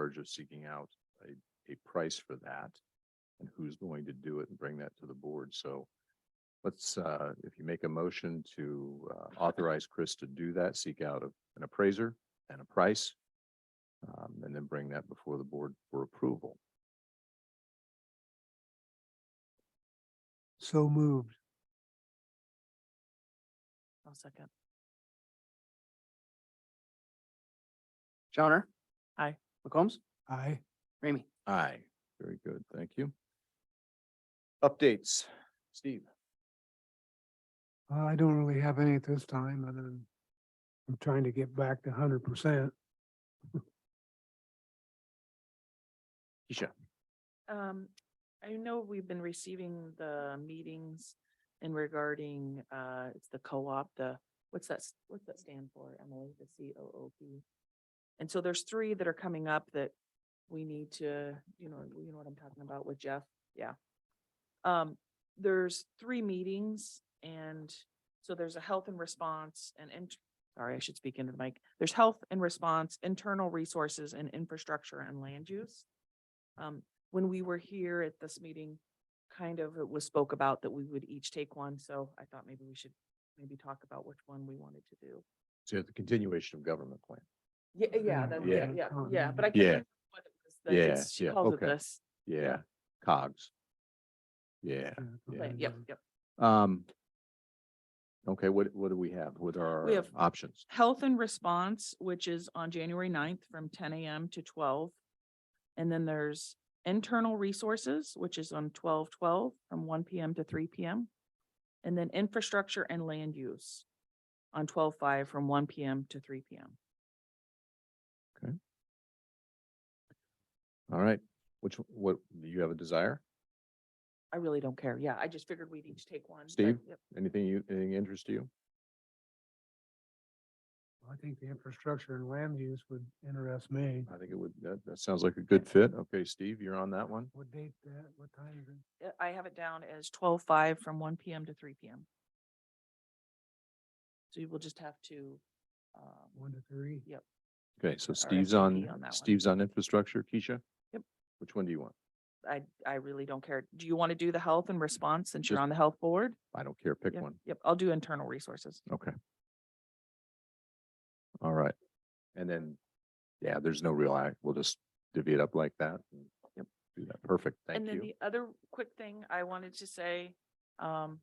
charge of seeking out a, a price for that and who's going to do it and bring that to the board. So let's, uh, if you make a motion to uh, authorize Chris to do that, seek out a- an appraiser and a price, um, and then bring that before the board for approval. So moved. I'll second. Johnner. Aye. McCombs. Aye. Ramey. Aye. Very good. Thank you. Updates, Steve. Uh, I don't really have any at this time, other than I'm trying to get back to hundred percent. Keisha. Um, I know we've been receiving the meetings in regarding, uh, it's the co-op, the, what's that, s- what's that stand for, Emily, the C O O P? And so there's three that are coming up that we need to, you know, you know what I'm talking about with Jeff, yeah. Um, there's three meetings and so there's a health and response and, int sorry, I should speak into the mic. There's health and response, internal resources and infrastructure and land use. Um, when we were here at this meeting, kind of it was spoke about that we would each take one, so I thought maybe we should maybe talk about which one we wanted to do. So the continuation of government plan. Yeah, yeah, Yeah, that's, yeah. yeah, yeah, yeah, but I Yeah. can't. remember what it was that it's- Yeah, She yeah, calls it okay. this, Yeah, COGS. Yeah, Uh, but yep, yep. um. Okay, what, what do we have? What are We our have- options? Health and Response, which is on January 9th from ten AM to twelve. And then there's Internal Resources, which is on twelve twelve from one PM to three PM. And then Infrastructure and Land Use on twelve five from one PM to three PM. All right, which, what, do you have a desire? I really don't care. Yeah, I just figured we'd each take one. but- Steve? Yep. Anything you, anything interests you? uh, I think the infrastructure and land use would interest me. I think it would, that, that sounds like a good fit. Okay, Steve, you're on that one. What date that, what time is it? Uh, I have it down as twelve five from one PM to three PM. So you will just have to, um, One to three? yep. Okay, so Or Steve's SVP on, on that one. Steve's on infrastructure, Keisha? Yep. Which one do you want? I, I really don't care. Do you want to do the health and response since you're Just on the health board? I don't care, pick Yeah, one. Yep, I'll do internal resources. Okay. All right. And then, yeah, there's no real, act. we'll just divvy it up like that. and Yep. Do that. Perfect. Thank And then you. the other quick thing I wanted to say, um,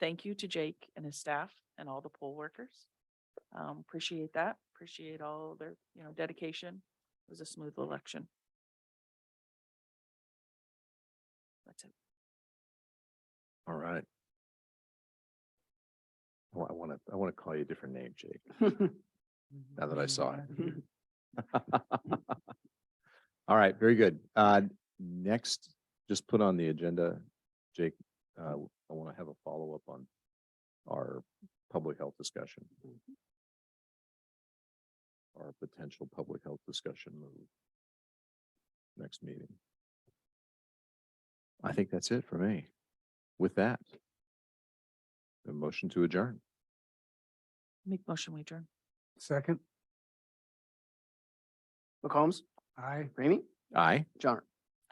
thank you to Jake and his staff and all the poll workers. Um, appreciate that. Appreciate all their, you know, dedication. It was a smooth election. That's it. All right. Well, I want to, I want to call you a different name, Jake. Now that I saw it. All right, very good. Uh, next, just put on the agenda, Jake, uh, I want to have a follow-up on our public health discussion. Our potential public health discussion move. Next meeting. I think that's it for me. With that. A motion to adjourn. Make motion, we adjourn. Second? McCombs. Aye. Ramey. Aye. Johnner.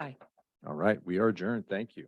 All right, we are adjourned. Thank you.